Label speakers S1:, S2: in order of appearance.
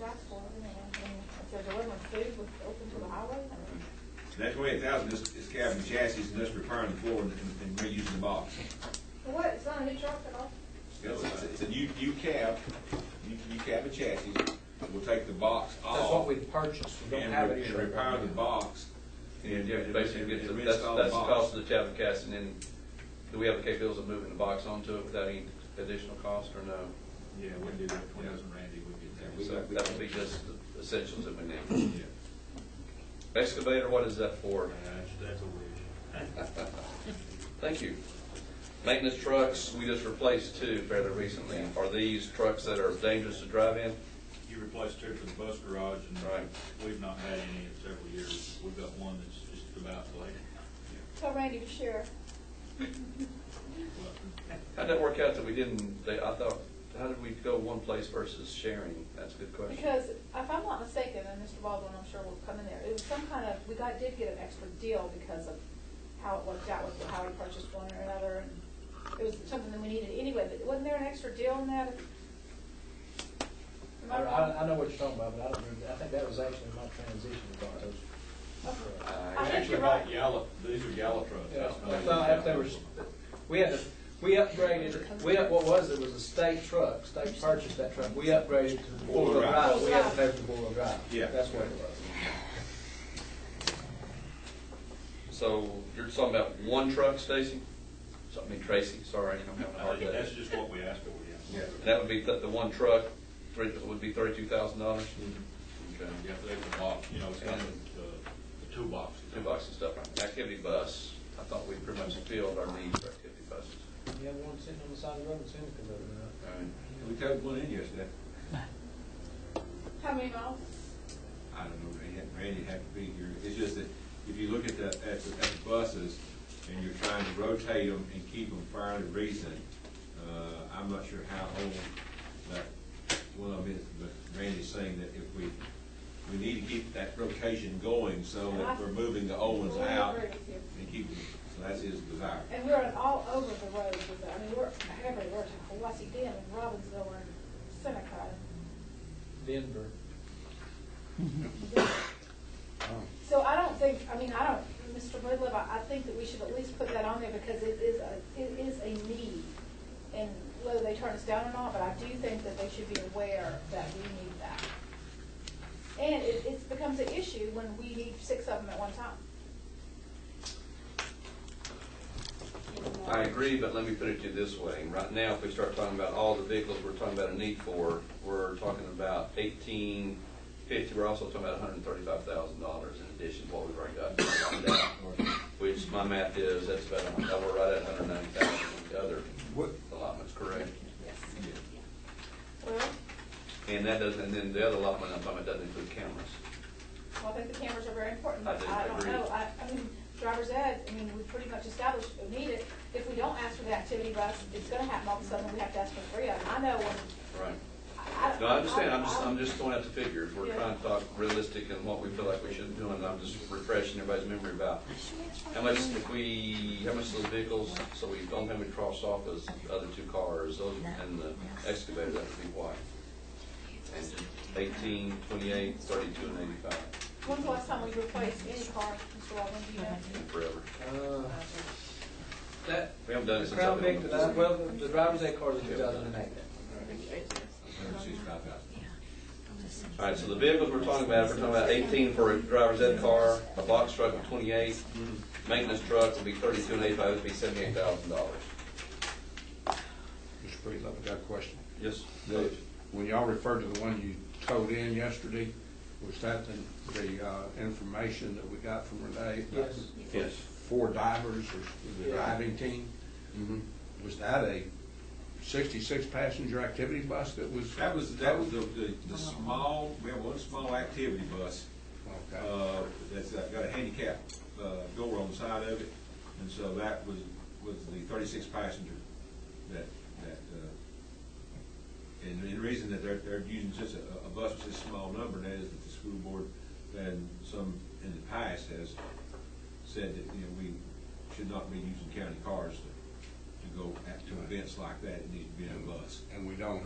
S1: right for them, and, and if they're delivering food, we're open to the highway, I mean,
S2: That twenty-eight thousand is, is cab and chassis and us repairing the floor and, and reusing the box.
S1: what, it's not a new truck at all?
S2: It's, it's- it's a new, new cab, new, new cab and chassis, we'll take the box off.
S3: That's what we purchased, we don't
S2: And
S3: have
S2: re-
S3: it.
S2: and repair the box.
S4: And yeah,
S2: and-
S4: basically,
S2: and
S4: it's- that's,
S2: reinstall the
S4: that's the
S2: box.
S4: cost of the cab and cast, and then do we have the capabilities of moving the box onto it without any additional cost, or no?
S5: Yeah, we do that, twenty thousand Randy, we get
S2: Yeah,
S5: that.
S2: we-
S4: So that would be just the essentials that we need. Excavator, what is that for?
S5: That's, Uh, that's a wish.
S4: Thank you. Maintenance trucks, we just replaced two fairly recently. Are these trucks that are dangerous to drive in?
S5: You replaced two for the bus garage,
S4: Right.
S5: and we've not had any in several years. We've got one that's just about late.
S1: Tell Randy to share.
S4: How'd that work out that we didn't, they, I thought, how did we go one place versus sharing? That's a good question.
S1: Because if I'm not mistaken, and Mr. Baldwin, I'm sure will come in there, it was some kind of, we got, did get an extra deal because of how it worked out with how we purchased one or another, and it was something that we needed anyway, but wasn't there an extra deal in that? Am
S3: I,
S1: I wrong?
S3: I, I know what you're talking about, but I don't, remember- I think that was actually my transition car, those.
S1: I think
S5: Actually,
S1: you're right.
S5: like Yalla, these are Yalla trucks.
S3: Yeah,
S5: That's
S3: I
S5: not-
S3: thought, if they were, we had, to- we upgraded, we, up- what was it, it was a state truck, state purchased that truck, we upgraded to the four-wheel
S2: Four-wheel
S3: drive,
S1: drive.
S3: we had to pay for the four-wheel drive.
S2: Yeah.
S3: That's what it was.
S4: So you're talking about one truck, Stacy? So- I mean Tracy, sorry, I'm having a
S5: I
S4: hard
S5: think That's
S4: day.
S5: just what we asked for, yeah.
S2: Yeah.
S4: And that would be, the, the one truck, three, would be thirty-two thousand dollars? Okay.
S5: You have to take the box, you know, it's got the, the toolbox.
S4: Two boxes stuff, activity bus, I thought we pretty much filled our needs for activity buses.
S3: You have one sitting on the side of the road, it's in the converter now.
S4: All right.
S2: We towed one in yesterday.
S1: How many miles?
S2: I don't know, Randy, had- Randy had to be here. It's just that if you look at the, at the, at the buses and you're trying to rotate them and keep them fairly recent, uh, I'm not sure how old that one of them is, but Randy's saying that if we, we need to keep that rotation going so that we're moving the old ones
S1: Well, I
S2: out
S1: agree with you.
S2: and keeping, so that's his desire.
S1: And we're in all over the roads with that. I mean, we're everywhere, to Hawassee Dam, and Robbinsville, and Seneca.
S3: Denver.
S1: So I don't think, I mean, I don't, Mr. Breedlove, I, I think that we should at least put that on there because it is a, it is a need. And whether they turn us down or not, but I do think that they should be aware that we need that. And it, it becomes an issue when we need six of them at one time.
S4: I agree, but let me put it to you this way. Right now, if we start talking about all the vehicles we're talking about a need for, we're talking about eighteen fifty, we're also talking about hundred and thirty-five thousand dollars in addition to what we've already got. Which my math is, that's about, a hun- that we're right at hundred and ninety thousand in the other allotments, correct?
S1: Yes.
S2: Yeah.
S1: Well,
S4: And that doesn't, and then the other allotment I'm talking about doesn't include cameras.
S1: well, I think the cameras are very important,
S4: I
S1: but
S4: do
S1: I don't
S4: agree.
S1: know, I, I mean, driver's ed, I mean, we pretty much established we need it. If we don't ask for the activity bus, it's gonna happen all of a sudden, we have to ask for three of them. I know when,
S4: Right.
S1: I, I.
S4: No, I understand, I'm just,
S1: I-
S4: I'm just throwing out the figures, we're
S1: Yeah.
S4: trying to talk realistic and what we feel like we should do, and I'm just refreshing everybody's memory about how much if we, how much those vehicles, so we don't have it crossed off as other two cars, those, and the excavator, that would be what? And Eighteen, twenty-eight, thirty-two, and eighty-five,
S1: When's the last time we replaced any car, Mr. Baldwin, do you know?
S4: and forever.
S3: Uh, That,
S4: We haven't done it since I've
S3: Crown
S4: been.
S3: Vic,
S4: on the
S3: that I-
S4: board.
S3: well, the driver's ed car is two thousand and eight.
S2: $165,000.
S4: All right, so the vehicles we're talking about, we're talking about eighteen for a driver's ed car, a box truck of twenty-eight, maintenance truck would be thirty-two and eighty-five, would be seventy-eight thousand dollars.
S6: Mr. Breedlove, I got a question.
S4: Yes.
S6: The- When y'all referred to the one you towed in yesterday, was that the, the uh, information that we got from Renee? about
S3: Yes.
S6: the
S4: Yes.
S6: Four divers, or the
S3: Yeah.
S6: diving team? Was that a sixty-six passenger activity bus that was?
S2: That was, that was the, the, the small, we have one small activity bus
S6: Okay.
S2: uh, that's got a handicap uh, door on the side of it, and so that was, was the thirty-six passenger that, that, uh, and and the reason that they're, they're using such a, a bus with such a small number, and that is that the school board and some in the past has said that, you know, we should not be using county cars to, to go at, to events like that, it needs to be in a bus.
S6: And we don't